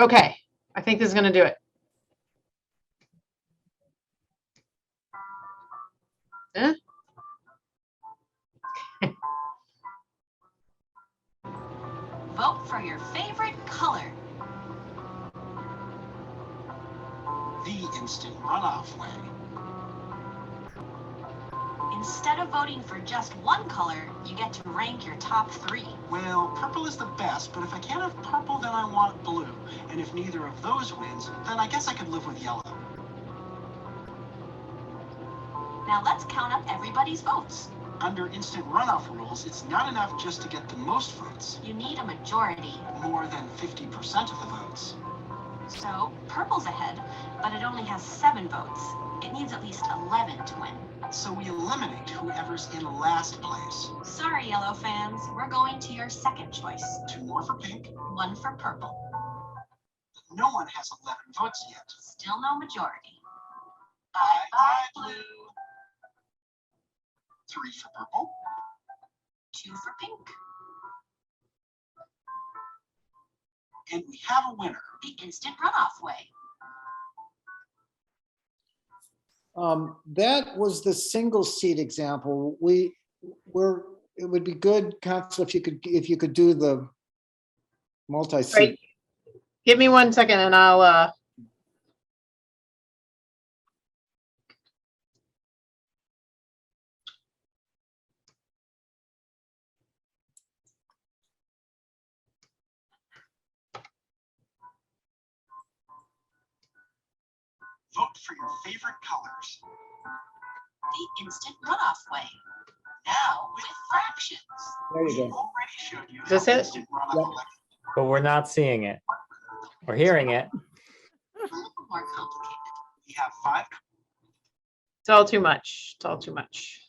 Okay, I think this is gonna do it. Huh? Vote for your favorite color. the instant runoff way. Instead of voting for just one color, you get to rank your top three. Well, purple is the best, but if I can't have purple, then I want blue. And if neither of those wins, then I guess I could live with yellow. Now let's count up everybody's votes. Under instant runoff rules, it's not enough just to get the most votes, You need a majority. more than 50% of the votes. So purple's ahead, but it only has seven votes. It needs at least 11 to win. So we eliminate whoever's in last place. Sorry, yellow fans, we're going to your second choice. Two more for pink. One for purple. No one has 11 votes yet. Still no majority. Bye bye, blue. Three for purple. Two for pink. And we have a winner. The instant runoff way. Um, that was the single seat example. We, were, it would be good, Council, if you could, if you could do the multi-seat. Right. Give me one second and I'll, uh. Vote for your favorite colors. The instant runoff way. Now with fractions. There We you already go. showed you. This how it? instant runoff Yep. elections but we're not seeing it. We're hearing it. A little more complicated. We have five. It's all too much. It's all too much.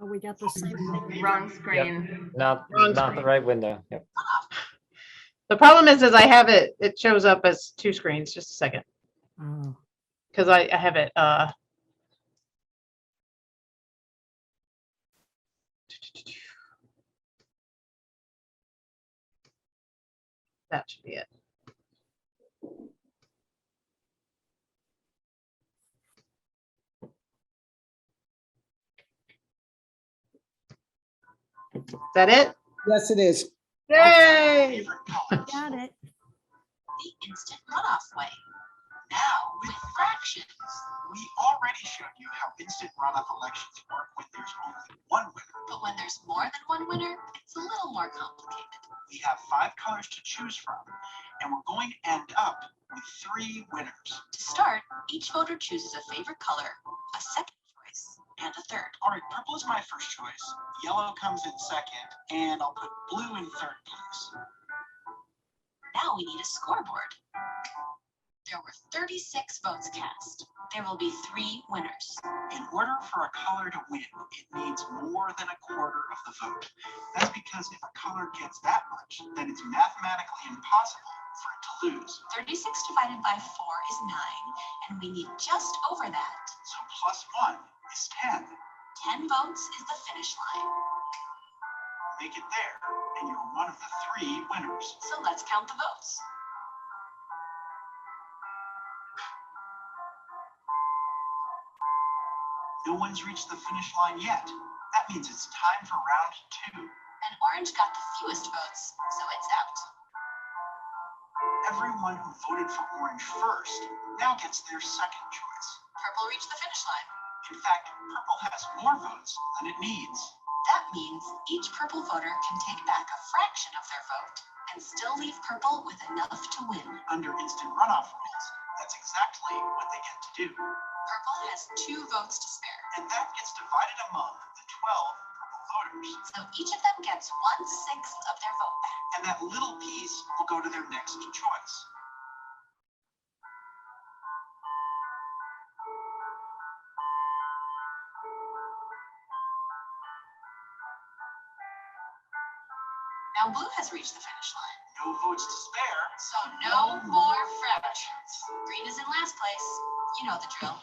Oh, we got the same thing. Wrong screen. Not, Wrong not the screen. right window. Yep. The problem is, is I have it, it shows up as two screens, just a second, Oh, because I, I have it, uh. That should be it. Is that it? Yes, it is. Yay! favorite colors. Got it. The instant runoff way. Now, with fractions, we already showed you how instant runoff elections work when there's only one winner. But when there's more than one winner, it's a little more complicated. We have five colors to choose from, and we're going to end up with three winners. To start, each voter chooses a favorite color, a second choice, and a third. All right, purple is my first choice. Yellow comes in second, and I'll put blue in third place. Now we need a scoreboard. There were 36 votes cast. There will be three winners. In order for a color to win, it needs more than a quarter of the vote. That's because if a color gets that much, then it's mathematically impossible for it to lose. 36 divided by 4 is 9, and we need just over that. So plus one is 10. 10 votes is the finish line. Make it there, and you're one of the three winners. So let's count the votes. No one's reached the finish line yet. That means it's time for round two. And orange got the fewest votes, so it's out. Everyone who voted for orange first now gets their second choice. Purple reached the finish line. In fact, purple has more votes than it needs. That means each purple voter can take back a fraction of their vote and still leave purple with enough to win. Under instant runoff rules, that's exactly what they get to do. Purple has two votes to spare, And that gets divided among the 12 purple voters. so each of them gets one sixth of their vote back. And that little piece will go to their next choice. Now blue has reached the finish line, No votes to spare, so no more fractions. Green is in last place. You know the drill.